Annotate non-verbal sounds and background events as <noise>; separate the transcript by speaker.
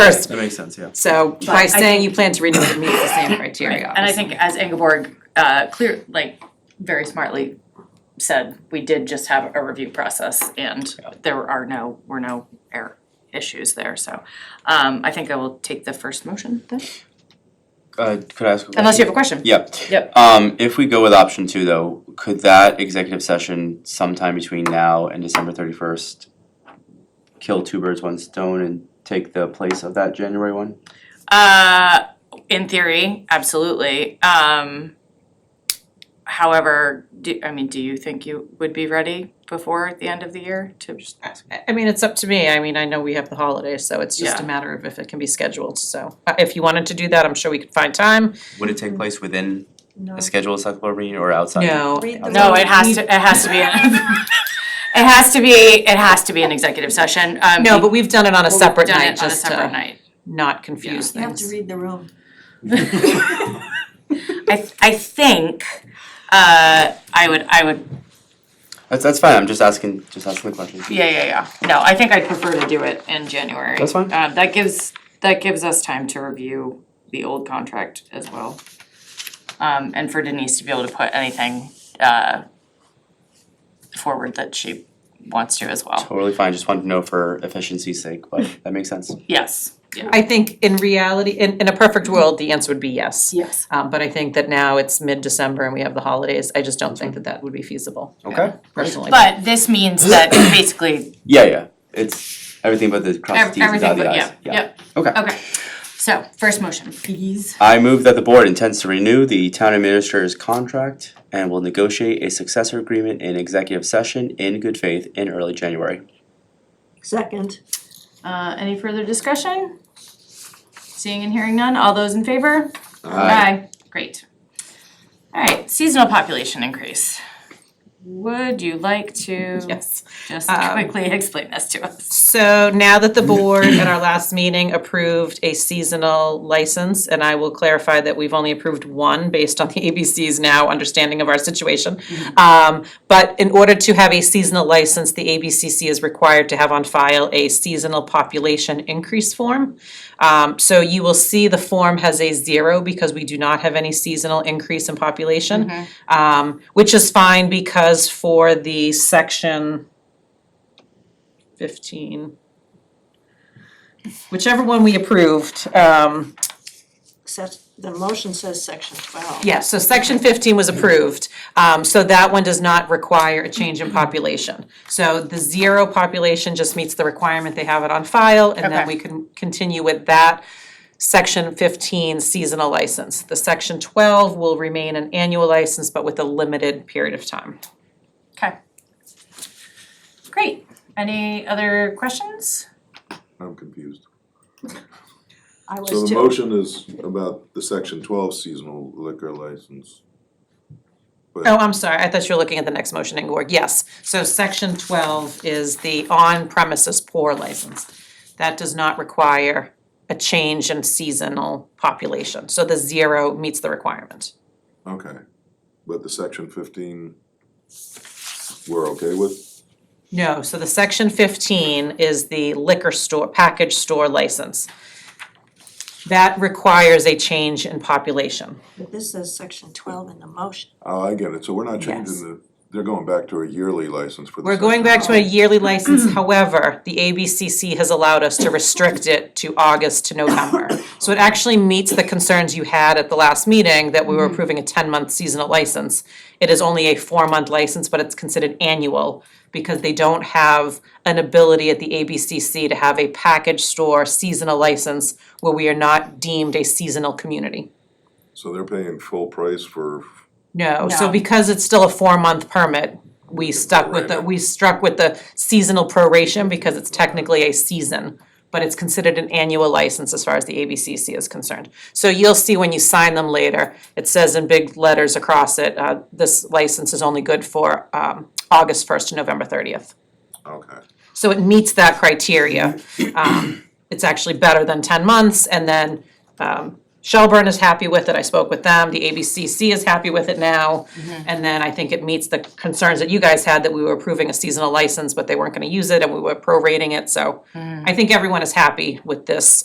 Speaker 1: first.
Speaker 2: That makes sense, yeah.
Speaker 1: So by
Speaker 3: I
Speaker 1: saying you plan to renew, it meets the same criteria.
Speaker 3: And I think as Ingeborg uh clear, like very smartly said, we did just have a review process and there are no, were no error issues there, so. Um I think I will take the first motion then,
Speaker 4: Uh, could I ask? a
Speaker 3: unless you
Speaker 4: question?
Speaker 3: have a question.
Speaker 4: Yeah.
Speaker 3: Yep.
Speaker 4: Um, if we go with option two though, could that executive session sometime between now and December thirty first kill two birds, one stone and take the place of that January one?
Speaker 3: Uh, in theory, absolutely. Um, however, do, I mean, do you think you would be ready before the end of the year to just?
Speaker 1: I- I mean, it's up to me. I mean, I know we have the holidays, so it's just a
Speaker 3: Yeah.
Speaker 1: matter of if it can be scheduled. So uh, if you wanted to do that, I'm sure we could find time.
Speaker 4: Would it take place within
Speaker 5: No.
Speaker 4: a scheduled select board meeting or outside?
Speaker 1: No.
Speaker 5: Read the
Speaker 3: No, it has to, it has to be, <laughs> it has to be, it has to be an executive session. Um,
Speaker 1: No, but we've done it on a
Speaker 3: we've
Speaker 1: separate
Speaker 3: done
Speaker 1: night,
Speaker 3: it on a
Speaker 1: just
Speaker 3: separate
Speaker 1: to
Speaker 3: night.
Speaker 1: not confuse
Speaker 5: You have to
Speaker 1: things.
Speaker 5: read the room.
Speaker 3: I, th- I think, uh, I would, I would
Speaker 4: <laughs> That's that's fine, I'm just asking, just asking the question.
Speaker 3: Yeah, yeah, yeah. No, I think I'd prefer to do it in January.
Speaker 4: That's fine.
Speaker 3: Uh, that gives, that gives us time to review the old contract as well. Um, and for Denise to be able to put anything, uh, forward that she wants to as well.
Speaker 4: Totally fine, just wanted to know for efficiency's sake, but that makes sense.
Speaker 3: Yes, yeah.
Speaker 1: I think in reality, in, in a perfect world, the answer would be yes.
Speaker 3: Yes.
Speaker 1: Um, but I think that now it's mid-December and we have the holidays. I just don't think that that would be feasible
Speaker 4: Okay.
Speaker 1: personally.
Speaker 3: But this means that basically
Speaker 4: Yeah, yeah, it's everything but the cross the
Speaker 3: ev-
Speaker 4: Ts and
Speaker 3: everything,
Speaker 4: dot the
Speaker 3: but
Speaker 4: Is.
Speaker 3: yeah, yep.
Speaker 4: Okay.
Speaker 3: Okay, so first motion, please.
Speaker 4: I move that the board intends to renew the town administrator's contract and will negotiate a successor agreement in executive session in good faith in early January.
Speaker 5: Second,
Speaker 3: Uh, any further discussion? Seeing and hearing none, all those in favor? Aye. Great. Alright, seasonal population increase. Would you like to
Speaker 1: Yes.
Speaker 3: just
Speaker 1: Um,
Speaker 3: quickly <laughs> explain this to us?
Speaker 1: So now that the board at our last meeting approved a seasonal license, and I will clarify that we've only approved one based on the <laughs> ABC's now understanding of our situation. Um, but in order to have a seasonal license, the ABCC is required to have on file a seasonal population increase form. Um, so you will see the form has a zero because we do not have any seasonal increase in population. Um, which is fine because for the section fifteen, whichever one we approved, um,
Speaker 5: sec- the motion says section twelve.
Speaker 1: yeah, so section fifteen was approved. Um, so that one does not require a change in population. So the zero population just meets the requirement, they have it on file, and then
Speaker 3: Okay.
Speaker 1: we can continue with that section fifteen seasonal license. The section twelve will remain an annual license, but with a limited period of time.
Speaker 3: Okay. Great. Any other questions?
Speaker 6: I'm confused.
Speaker 5: I was
Speaker 6: So the
Speaker 5: too.
Speaker 6: motion is about the section twelve seasonal liquor license.
Speaker 1: Oh, I'm sorry, I thought you were looking at the next motion, Ingeborg, yes. So section twelve is the on-premises pour license. That does not require a change in seasonal population, so the zero meets the requirement.
Speaker 6: Okay, but the section fifteen, we're okay with?
Speaker 1: No, so the section fifteen is the liquor store, package store license. That requires a change in population.
Speaker 5: But this says section twelve in the motion.
Speaker 6: Oh, I get it, so we're not
Speaker 1: Yes.
Speaker 6: changing the, they're going back to a yearly license for the
Speaker 1: We're going
Speaker 6: section.
Speaker 1: back to a
Speaker 6: <clears throat>
Speaker 1: yearly license, however, the ABCC has allowed us to restrict it to August to November. So it actually meets the concerns you had at the last meeting that we
Speaker 6: Mm-hmm.
Speaker 1: were approving a ten-month seasonal license. It is only a four-month license, but it's considered annual because they don't have an ability at the ABCC to have a package store seasonal license where we are not deemed a seasonal community.
Speaker 6: So they're paying full price for,
Speaker 1: No, so
Speaker 3: No.
Speaker 1: because it's still a four-month permit, we stuck with the,
Speaker 6: Prorated.
Speaker 1: we struck with the seasonal proration because it's technically a season, but it's considered an annual license as far as the ABCC is concerned. So you'll see when you sign them later, it says in big letters across it, uh, this license is only good for, um, August first to November thirtieth.
Speaker 6: okay,
Speaker 1: So it meets that criteria. Um, it's actually better than ten months, and then, um, Shelburne is happy with it, I spoke with them, the ABCC is happy with it now. And then I think it meets the concerns that you guys had, that we were approving a seasonal license, but they weren't gonna use it, and we were prorating it, so I think everyone is happy with this